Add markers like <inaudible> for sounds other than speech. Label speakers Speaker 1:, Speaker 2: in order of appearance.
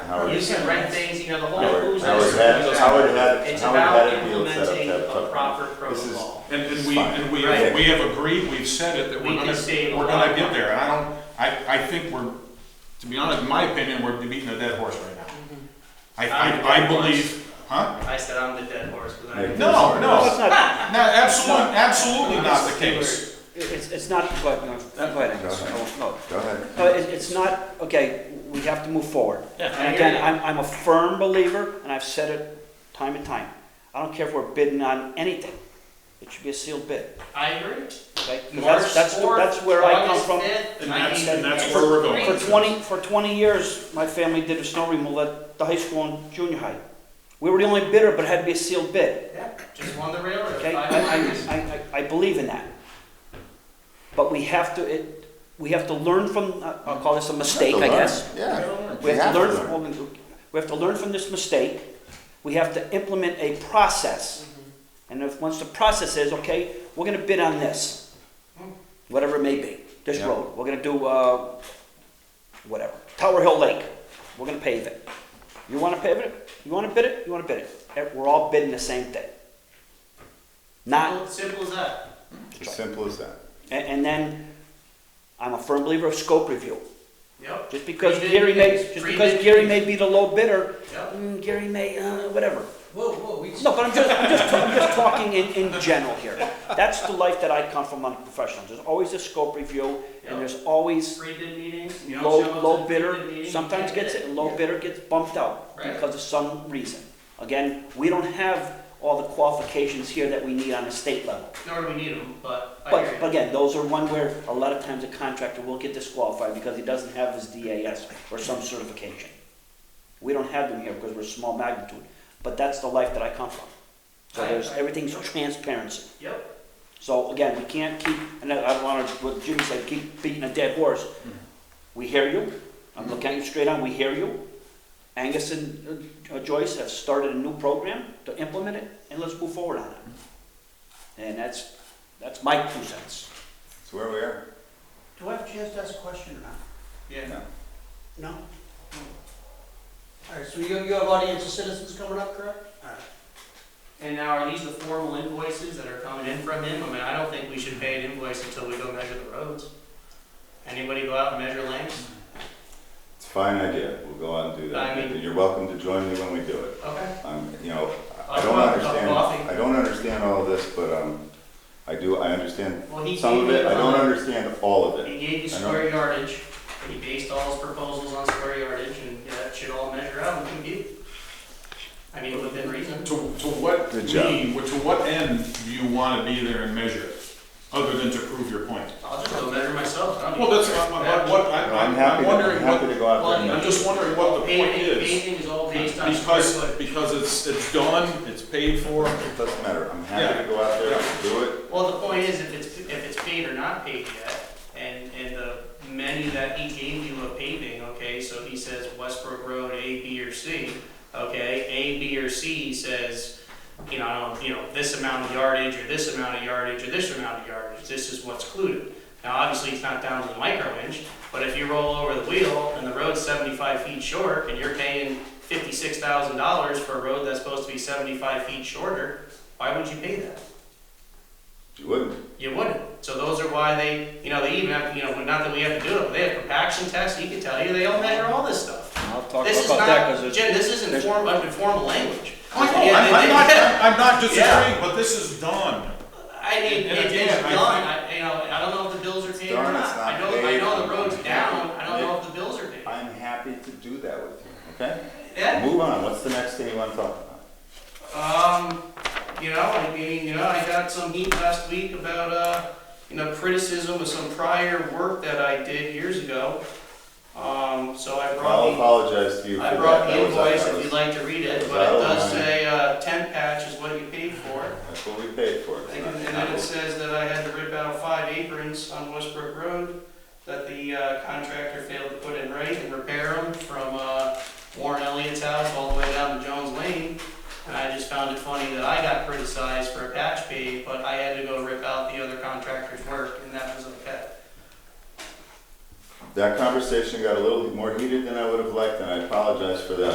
Speaker 1: Howard,
Speaker 2: You can rent things, you know, the whole
Speaker 1: Howard,
Speaker 2: who's.
Speaker 1: Howard had, Howard had,
Speaker 2: It's
Speaker 1: Howard had
Speaker 2: about
Speaker 1: a deal set up.
Speaker 2: implementing
Speaker 1: that-
Speaker 2: a proper
Speaker 1: This is-
Speaker 2: protocol.
Speaker 3: And, and we, and we, have- we have agreed, we've said it, that
Speaker 2: We
Speaker 3: we're
Speaker 2: can
Speaker 3: gonna,
Speaker 2: save a
Speaker 3: we're
Speaker 2: lot
Speaker 3: gonna
Speaker 2: of
Speaker 3: get
Speaker 2: money.
Speaker 3: there, and I don't, I, I think we're, to be honest, in my opinion, we're beating a dead horse right now. I,
Speaker 2: I'm
Speaker 3: I, I
Speaker 2: dead horse.
Speaker 3: believe, huh?
Speaker 2: I said I'm the dead horse, but
Speaker 1: Right.
Speaker 2: I'm.
Speaker 3: No,
Speaker 1: No,
Speaker 3: no,
Speaker 4: it's not,
Speaker 3: no, absolutely, absolutely not the case.
Speaker 4: it's, it's not, go ahead, no, go ahead, Angus. no, no.
Speaker 1: Go ahead.
Speaker 4: No, it, it's not, okay, we have to move forward.
Speaker 2: Yeah, I
Speaker 4: And
Speaker 2: hear you.
Speaker 4: again, I'm, I'm a firm believer, and I've said it time and time, I don't care if we're bidding on anything, it should be a sealed bid,
Speaker 2: I agree.
Speaker 4: okay? 'Cause
Speaker 2: March
Speaker 4: that's, that's,
Speaker 2: fourth,
Speaker 4: that's where I come
Speaker 2: August
Speaker 4: from.
Speaker 2: fifth,
Speaker 3: And that's-
Speaker 2: 19th.
Speaker 3: and that's where we're going.
Speaker 4: For twenty, for twenty years, my family did a snow removal at the high school and junior high. We were the only bidder, but it had to be a sealed bid,
Speaker 2: Yeah, Just won the railroad.
Speaker 4: okay? I,
Speaker 2: five
Speaker 4: I,
Speaker 2: years.
Speaker 4: I, I- I believe in that. But we have to, it, we have to learn from, I- I'll call this a mistake, I guess.
Speaker 1: Yeah.
Speaker 4: We have to learn, from- we have to learn from this mistake. We have to implement a process. And if, once the process is, okay, we're gonna bid on this, whatever it may be, this
Speaker 1: Yeah.
Speaker 4: road, we're gonna do, uh, whatever, Tower Hill Lake, we're gonna pave it. You wanna pave it? You wanna bid it? You wanna bid it? Eh, We're all bidding the same thing. Not,
Speaker 2: Simple- Simple as that.
Speaker 1: It's as simple as that.
Speaker 4: and, and then, I'm a firm believer of scope review.
Speaker 2: Yep.
Speaker 4: Just because
Speaker 2: Pre-bid
Speaker 4: Gary may,
Speaker 2: bids,
Speaker 4: just
Speaker 2: pre-bid
Speaker 4: because Gary
Speaker 2: bids.
Speaker 4: may be the low bidder,
Speaker 2: Yep.
Speaker 4: mm, Gary may, uh, whatever.
Speaker 5: Whoa, whoa, we.
Speaker 4: No, but I'm just, I'm just, I'm just talking in, in general here. That's the life that I come from on professionals. There's always a scope review and there's always
Speaker 2: Pre-bid meetings. you know,
Speaker 4: low,
Speaker 2: show up to
Speaker 4: low
Speaker 2: the pre-bid
Speaker 4: bidder,
Speaker 2: meeting,
Speaker 4: sometimes
Speaker 2: you
Speaker 4: gets
Speaker 2: bid
Speaker 4: it, low bidder gets bumped out
Speaker 2: Right.
Speaker 4: because of some reason. Again, we don't have all the qualifications here that we need on a state level.
Speaker 2: Nor do we need them, but I hear
Speaker 4: But,
Speaker 2: you.
Speaker 4: but again, those are one where a lot of times a contractor will get disqualified because he doesn't have his DAS or some certification. We don't have them here because we're small magnitude, but that's the life that I come from. So
Speaker 2: I-
Speaker 4: there's,
Speaker 2: I-
Speaker 4: everything's transparency.
Speaker 2: Yep.
Speaker 4: So again, we can't keep, and I I don't wanna, what Jimmy said, keep beating a dead horse.
Speaker 2: Hmm.
Speaker 4: We hear you, I'm looking at you straight on, we hear you. Angus and uh, Joyce have started a new program to implement it, and let's move forward on it.
Speaker 2: Hmm.
Speaker 4: And that's, that's my two cents.
Speaker 1: It's where we are.
Speaker 4: Do I have a chance to ask a question or not?
Speaker 2: Yeah.
Speaker 4: No?
Speaker 5: All right, so you, you have audience of citizens coming up, correct?
Speaker 2: And now are these the formal invoices that are coming in from him? I mean, I don't think we should pay an invoice until we go measure the roads. Anybody go out and measure lanes?
Speaker 1: It's a fine idea. We'll go out and do that.
Speaker 2: I mean-
Speaker 1: You're welcome to join me when we do it.
Speaker 2: Okay.
Speaker 1: I'm, you know, I I
Speaker 2: I'll
Speaker 1: don't
Speaker 2: go out, I'll
Speaker 1: understand,
Speaker 2: coffee.
Speaker 1: I don't understand all of this, but, um, I do, I understand
Speaker 2: Well, he
Speaker 1: some of
Speaker 2: gave
Speaker 1: it.
Speaker 2: you
Speaker 1: I don't
Speaker 2: the-
Speaker 1: understand all of it.
Speaker 2: He gave you
Speaker 1: I know.
Speaker 2: square yardage, and he based all his proposals on square yardage, and yeah, that should all measure out and compute. I mean, within reason.
Speaker 3: To, to what
Speaker 1: Good job.
Speaker 3: mean, to what end do you wanna be there and measure it, other than to prove your point?
Speaker 2: I'll just go measure myself. I don't
Speaker 3: Well,
Speaker 2: need-
Speaker 3: that's, I'm, I'm, what-
Speaker 1: No,
Speaker 3: I'm,
Speaker 1: I'm
Speaker 3: I'm
Speaker 1: happy, to- I'm
Speaker 3: wondering what,
Speaker 1: happy to go out there. and
Speaker 2: Well,
Speaker 3: I'm
Speaker 1: measure.
Speaker 3: just wondering what the point
Speaker 2: Paving,
Speaker 3: is.
Speaker 2: paving is all based on square
Speaker 3: Because,
Speaker 2: footage.
Speaker 3: because it's, it's done, it's paid for,
Speaker 1: It doesn't matter. I'm
Speaker 3: Yeah.
Speaker 1: happy to go out there
Speaker 3: Yeah.
Speaker 1: and do it.
Speaker 2: Well, the point is, if it's, if it's paid or not paid yet, and, and the menu that he gave you of paving, okay, so he says Westbrook Road A, B, or C, okay, A, B, or C says, you know, I don't- you know, this amount of yardage, or this amount of yardage, or this amount of yardage, this is what's included. Now, obviously, it's not down to the micro inch, but if you roll over the wheel and the road's seventy-five feet short, and you're paying fifty-six thousand dollars for a road that's supposed to be seventy-five feet shorter, why would you pay that?
Speaker 1: You wouldn't.
Speaker 2: You wouldn't. So those are why they, you know, they even have, you know, not that we have to do it, but they have compaction tests, he could tell you, they all measure all this stuff.
Speaker 4: I'll talk
Speaker 2: This is
Speaker 4: about that,
Speaker 2: not,
Speaker 4: cause it's.
Speaker 2: Jim, this isn't
Speaker 4: there's-
Speaker 2: form, informal language.
Speaker 3: Oh, I know,
Speaker 2: Yeah,
Speaker 3: I'm,
Speaker 2: they-
Speaker 3: I'm
Speaker 2: they-
Speaker 3: not, I'm not
Speaker 2: Yeah.
Speaker 3: disagreeing, but this is done.
Speaker 2: <laughs> I mean,
Speaker 3: And
Speaker 2: it- it's
Speaker 3: again, I
Speaker 2: done,
Speaker 3: think-
Speaker 2: I, you know, I don't know if the bills are paid or
Speaker 1: done, it's
Speaker 2: not. I
Speaker 1: not
Speaker 2: know, I
Speaker 1: paid.
Speaker 2: know the road's down, I don't know if the bills are paid.
Speaker 1: I'm happy to do that with you, okay?
Speaker 2: Yeah,
Speaker 1: Move on. What's the next thing you want to talk about?
Speaker 2: um, you know, I mean, you know, I got some heat last week about, uh, you know, criticism of some prior work that I did years ago. Um, so I brought
Speaker 1: I'll
Speaker 2: the
Speaker 1: apologize to you for
Speaker 2: I
Speaker 1: that.
Speaker 2: brought
Speaker 1: That
Speaker 2: the
Speaker 1: was- that
Speaker 2: invoice if
Speaker 1: was-
Speaker 2: you'd like to read
Speaker 1: that
Speaker 2: it,
Speaker 1: was
Speaker 2: but it
Speaker 1: out of
Speaker 2: does
Speaker 1: line.
Speaker 2: say, uh, ten patch is what you paid for.
Speaker 1: That's what we paid for. It's
Speaker 2: And
Speaker 1: not-
Speaker 2: and then it says that I had to rip out five aprons on Westbrook Road that the uh, contractor failed to put in right and repair them from, uh, Warren Elliott's house all the way down to Jones Lane. And I just found it funny that I got criticized for a patch fee, but I had to go rip out the other contractor's work, and that was okay.
Speaker 1: That conversation got a little more heated than I would have liked, and I apologize for that.